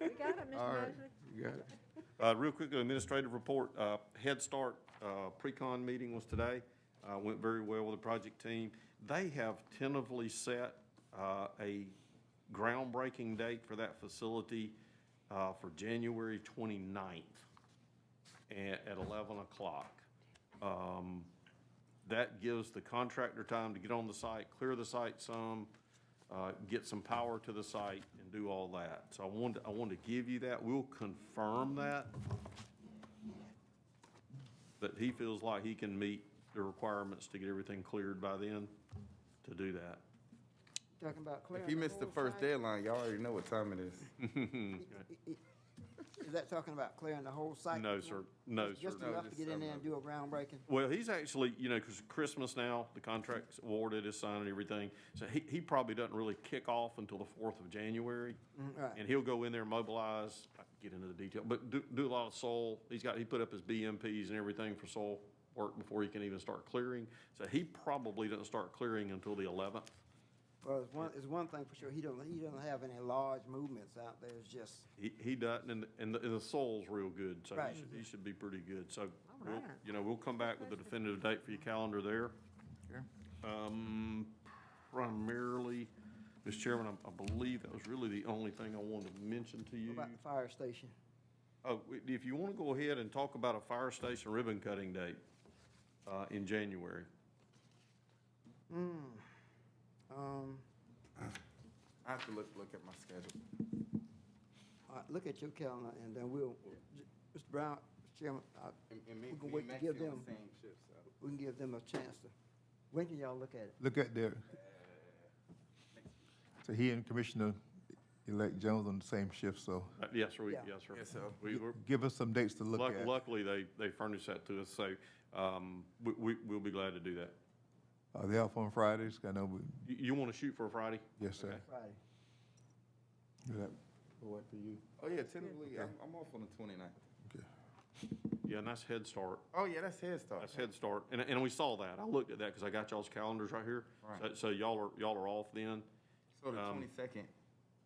All right, you got it. Uh, real quickly, administrative report, uh, Head Start, uh, pre-con meeting was today, uh, went very well with the project team. They have tentatively set, uh, a groundbreaking date for that facility, uh, for January 29th at, at eleven o'clock. Um, that gives the contractor time to get on the site, clear the site some, uh, get some power to the site and do all that. So I wanted, I wanted to give you that. We'll confirm that. That he feels like he can meet the requirements to get everything cleared by then to do that. Talking about clearing. If you missed the whole first site? deadline, y'all already know what time it is. Is that talking about clearing the whole site? No, sir. No, sir. Just enough to get in there and do a groundbreaking? Well, he's actually, you know, because Christmas now, the contract's awarded, is signed and everything. So he, he probably doesn't really kick off until the fourth of January. right. And he'll go in there, mobilize, I can get into the detail, but do, do a lot of soil. He's got, he put up his BMPs and everything for soil work before he can even start clearing. So he probably doesn't start clearing until the eleventh. Well, it's one, it's one thing for sure, he don't, he doesn't have any large movements out there, it's just, He, he doesn't, and, and the, and the soil's real good, so Right. he should, he should be pretty good. So, we'll- right. you know, we'll come back with a definitive date for your calendar there. Um, primarily, Mr. Chairman, I- I believe that was really the only thing I wanted to mention to what you. about the fire station? Oh, i- if you want to go ahead and talk about a fire station ribbon cutting date, uh, in January. Hmm. Um, I have to look, look at my schedule. all right, look at your calendar and then we'll, Mr. Brown, Mr. Chairman, I, And- and me- we can me wait and to Maxie give on them, the Same shift, so we can give them a chance to, when can y'all look at it? Look at there. So he and Commissioner-elect Jones on the same shift, so Uh, Yes, sir, we- Yeah. yes, sir. Yes, sir. We were, give us some dates to look luck- at. luckily, they, they furnished that to us, so, um, we, we, we'll be glad to do that. Are they off on Fridays? I know, we- You, you want to shoot for a Friday? yes, sir. Okay. Friday. Will that work for you? Oh, yeah, tentatively, I'm, I'm off on the 29th. Yeah, and that's Head Start. Oh, yeah, that's Head Start. That's Head Start, and, and we saw that, I looked at that, because I got y'all's calendars right here. Right. So so y'all are, y'all are off then, So the um, twenty-second,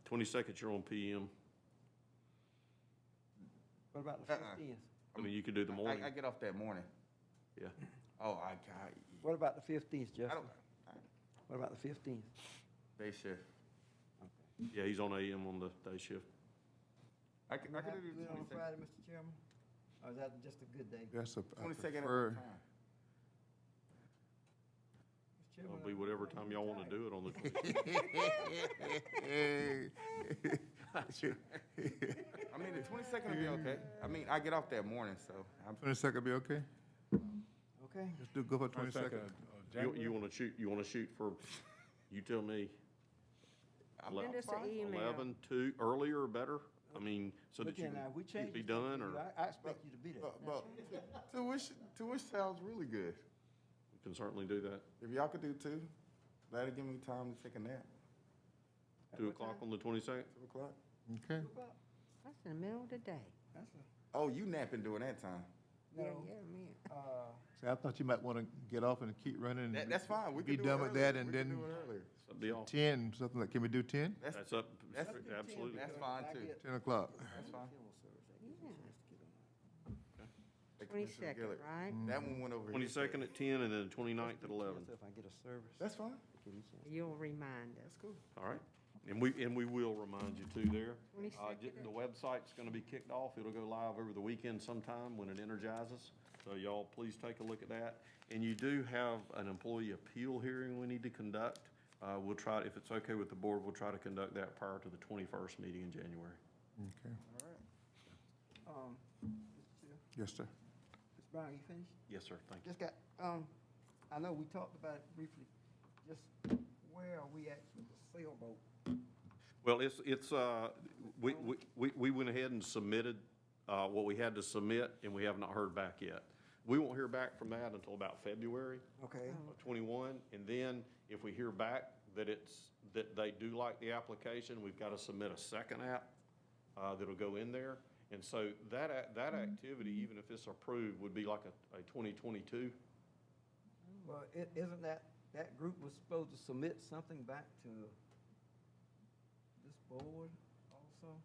twenty-second, you're on PM, What about the Uh-uh. fifteenth? I mean, you could do the I, morning, I get off that morning. yeah. Oh, I got, What about the fifteenth, I Justin? don't, I- What about the fifteenth? day shift. Yeah, he's on AM on the day shift. I can, I Have can to do it the on twenty-second. Friday, Mr. Chairman? Or is that just a good day? That's a, I Twenty-second at prefer, what time? It'll be whatever time y'all want to do it on the twenty. Hey. I mean, the twenty-second will be okay. I mean, I get off that morning, so I'm, Twenty-second be okay? Okay. Let's do, go for twenty-second. You, you want to shoot, you want to shoot for, you tell me. I'm ele- Send us an email. Eleven, two, earlier or better, I mean, so that But you then, uh, we can changed be it to done, you. or we I, I expect you to be there. but, but, to which, to which sounds really good. can certainly do that. If y'all could do two, that'll give me time to take a nap, Two o'clock on the twenty-second? two o'clock. Okay, That's in the middle of the day. That's a- Oh, you napping during that time? Yeah, No, yeah, man. uh, so I thought you might want to get off and keep running. and That, that's fine. We Be can do it done with earlier. that and We can then- do it earlier. That'd be all, Ten, something like, can we do ten? That's, that's up, that's- absolutely. that's fine too. Ten o'clock. That's fine. Like Commissioner Twenty-second, Gillett. right? That one went over. his head. Twenty-second at ten, and then twenty-ninth at eleven. If I get a service. That's fine. give you a chance. You'll remind us. cool. All right, and we, and we will remind you too there. Uh, 22nd. j- The website's gonna be kicked off, it'll go live over the weekend sometime when it energizes, so y'all please take a look at that. And you do have an employee appeal hearing we need to conduct, uh, we'll try, if it's okay with the board, we'll try to conduct that prior to the twenty-first meeting in January. Okay, All right. Um, Mr. Chair, yes, sir. Mr. Brown, you finished? Yes, sir, thank you. Just got, um, I know we talked about it briefly, just where are we at with the sailboat? Well, it's, it's, uh, we, we- we, we went ahead and submitted, uh, what we had to submit, and we have not heard back yet. We won't hear back from that until about February. Okay, of twenty-one, and then if we hear back that it's, that they do like the application, we've got to submit a second app, uh, that'll go in there. And so that, ac- that activity, even if it's approved, would be like a, a twenty-twenty-two. well, it, isn't that, that group was supposed to submit something back to this board?